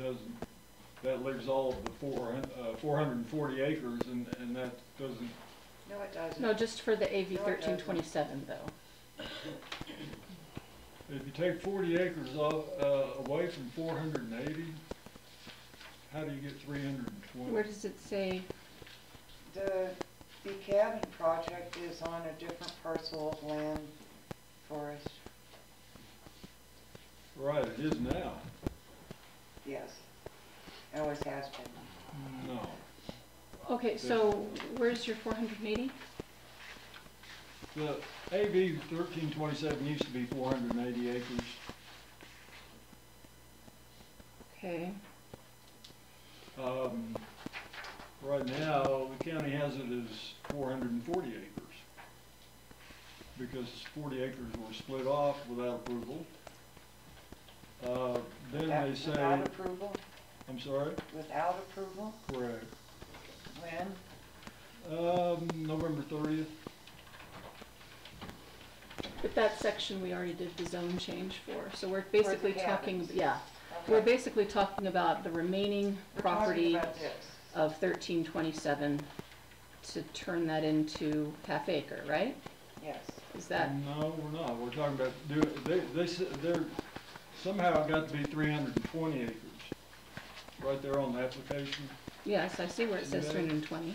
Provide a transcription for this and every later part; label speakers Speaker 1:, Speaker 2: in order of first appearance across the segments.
Speaker 1: doesn't, that leaves all of the four, hun- uh, four hundred and forty acres and, and that doesn't,
Speaker 2: No, it doesn't.
Speaker 3: No, just for the AV
Speaker 2: No, it doesn't.
Speaker 3: thirteen twenty-seven though.
Speaker 1: if you take forty acres off, uh, away from four hundred and eighty, how do you get three hundred and
Speaker 3: Where
Speaker 1: twenty?
Speaker 3: does it say,
Speaker 2: The, the cabin project is on a different parcel of land for us,
Speaker 1: Right, it is now.
Speaker 2: yes. It Always has been.
Speaker 1: No.
Speaker 3: okay, so where's your four hundred and eighty?
Speaker 1: The AB thirteen twenty-seven used to be four hundred and eighty acres.
Speaker 3: Okay,
Speaker 1: Um, right now, the county has it as four hundred and forty acres. Because forty acres were split off without approval. Uh, then
Speaker 2: That-
Speaker 1: they say,
Speaker 2: Without approval,
Speaker 1: I'm sorry,
Speaker 2: without approval,
Speaker 1: correct,
Speaker 2: when?
Speaker 1: um, November thirtieth,
Speaker 3: but that section we already did the zone change for, so we're basically talking,
Speaker 2: cabins.
Speaker 3: yeah.
Speaker 2: Okay.
Speaker 3: We're basically talking about the remaining
Speaker 2: We're talking
Speaker 3: property
Speaker 2: about this.
Speaker 3: of thirteen twenty-seven to turn that into half acre, right?
Speaker 2: Yes,
Speaker 3: Is that,
Speaker 1: No, we're not, we're talking about, do, they, they, s- they're, somehow it got to be three hundred and twenty acres. Right there on the application.
Speaker 3: yes, I see where it says
Speaker 1: Yeah.
Speaker 3: three hundred and twenty.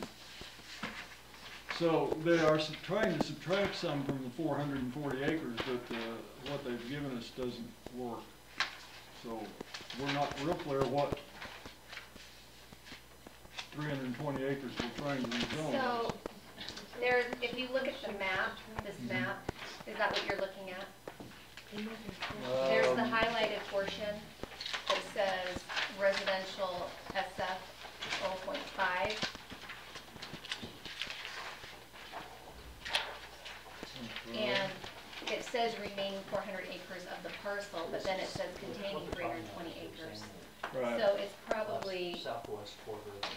Speaker 1: So they are sub- trying to subtract some from the four hundred and forty acres, but the, what they've given us doesn't work. So we're not real clear what three hundred and twenty acres we're trying to rezone.
Speaker 4: So, there, if you look at the map, this
Speaker 1: Mm-hmm.
Speaker 4: map, is that what you're looking at? There's the
Speaker 1: Um,
Speaker 4: highlighted portion that says residential SF 4.5.
Speaker 1: Mm-hmm.
Speaker 4: And it says remaining 400 acres of the parcel, but then it says containing 320 acres.
Speaker 1: Right,
Speaker 4: So it's probably,
Speaker 5: Southwest quarter. and west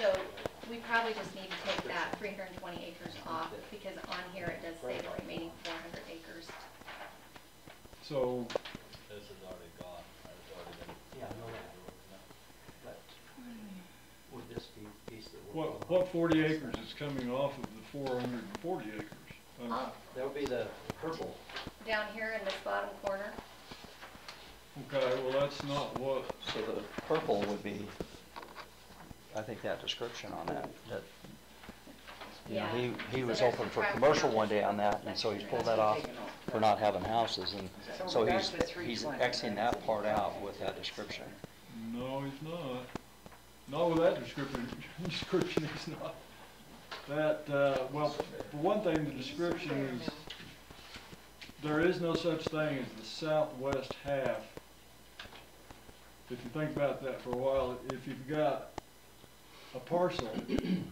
Speaker 5: quarter.
Speaker 4: so we probably just need to take that 320 acres off because on here it does say the remaining 400 acres.
Speaker 1: so,
Speaker 6: This is already gone, it's already been.
Speaker 5: Yeah, no, no, but would this be piece that we're.
Speaker 1: what, what forty acres is coming off of the four hundred and forty acres? Uh, I mean,
Speaker 4: Up
Speaker 5: That would be the purple.
Speaker 4: down here in this bottom corner, Oh.
Speaker 1: Okay, well, that's not what,
Speaker 7: So the purple would be, I think that description on that, that, you know, he, he
Speaker 4: Yeah.
Speaker 7: was
Speaker 4: So there's
Speaker 7: hoping for
Speaker 4: crack
Speaker 7: commercial
Speaker 4: down
Speaker 7: one
Speaker 4: there.
Speaker 7: day on that, and so he's pulled that off
Speaker 2: Taken off.
Speaker 7: for not having houses, and
Speaker 2: So
Speaker 7: so
Speaker 2: we're back
Speaker 7: he's,
Speaker 2: to
Speaker 7: he's
Speaker 2: 320.
Speaker 7: Xing that part out with that description.
Speaker 1: No, he's not. Not with that description, description he's not. That, uh, well, for one thing, the description is, there is no such thing as the southwest half. If you think about that for a while, if you've got a parcel, and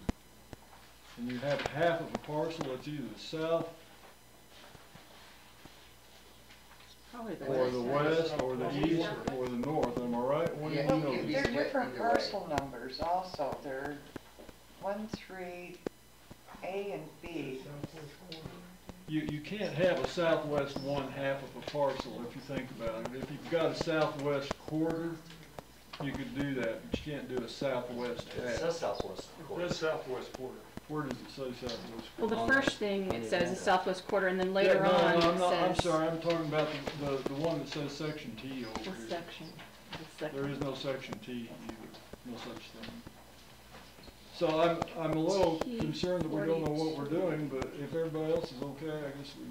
Speaker 1: you have half of a parcel, it's either the south,
Speaker 3: Probably the
Speaker 1: or the
Speaker 3: west.
Speaker 1: west, or the east, or the north, am I right? What do you know?
Speaker 2: Well, They're different parcel numbers also, they're one, three, A and B.
Speaker 1: You, you can't have a southwest one half of a parcel if you think about it. If you've got a southwest quarter, you could do that, but you can't do a southwest
Speaker 5: It
Speaker 1: half.
Speaker 5: says southwest quarter.
Speaker 1: southwest quarter. Where does it say southwest?
Speaker 3: Well,
Speaker 7: On
Speaker 3: the
Speaker 7: the-
Speaker 3: first thing
Speaker 7: on
Speaker 3: it
Speaker 7: the
Speaker 3: says is
Speaker 7: agenda.
Speaker 3: southwest quarter, and then
Speaker 1: Yeah,
Speaker 3: later
Speaker 1: no, no,
Speaker 3: on it
Speaker 1: I'm not- I'm
Speaker 3: says.
Speaker 1: sorry, I'm talking about the, the, the one that says section T over
Speaker 3: This
Speaker 1: here.
Speaker 3: section, this section.
Speaker 1: There is no section T either, no such thing. So I'm, I'm a little
Speaker 3: T
Speaker 1: concerned that we don't know what we're
Speaker 3: 42.
Speaker 1: doing, but if everybody else is okay, I guess we.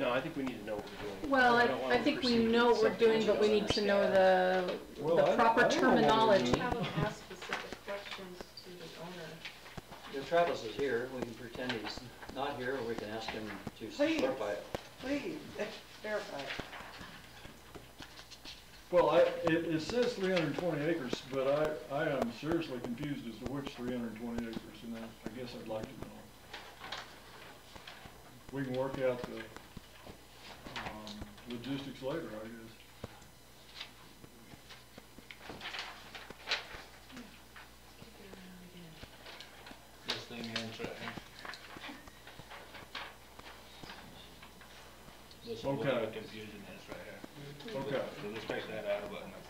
Speaker 8: No, I think we need to know what we're doing.
Speaker 3: Well,
Speaker 8: We
Speaker 3: I,
Speaker 8: don't wanna
Speaker 3: I think we
Speaker 8: proceed
Speaker 3: know
Speaker 8: with
Speaker 3: what we're
Speaker 8: something
Speaker 3: doing,
Speaker 8: she
Speaker 3: but we
Speaker 8: doesn't
Speaker 3: need to know
Speaker 8: understand.
Speaker 3: the,
Speaker 1: Well, I
Speaker 3: the
Speaker 1: don't- I
Speaker 3: proper
Speaker 1: don't know what we're
Speaker 3: terminology.
Speaker 1: doing.
Speaker 9: Have them ask specific questions to the owner.
Speaker 7: If Travis is here, we can pretend he's not here, or we can ask him to
Speaker 2: Please.
Speaker 7: clarify it.
Speaker 2: Please, verify.
Speaker 1: Well, I, it, it says three hundred and twenty acres, but I, I am seriously confused as to which three hundred and twenty acres, and I, I guess I'd like to know. We can work out the, um, logistics later, I guess.
Speaker 6: This thing here in Trenton. This is what
Speaker 1: Okay.
Speaker 6: the confusion is right here.
Speaker 1: Okay,
Speaker 6: So just take that out of it and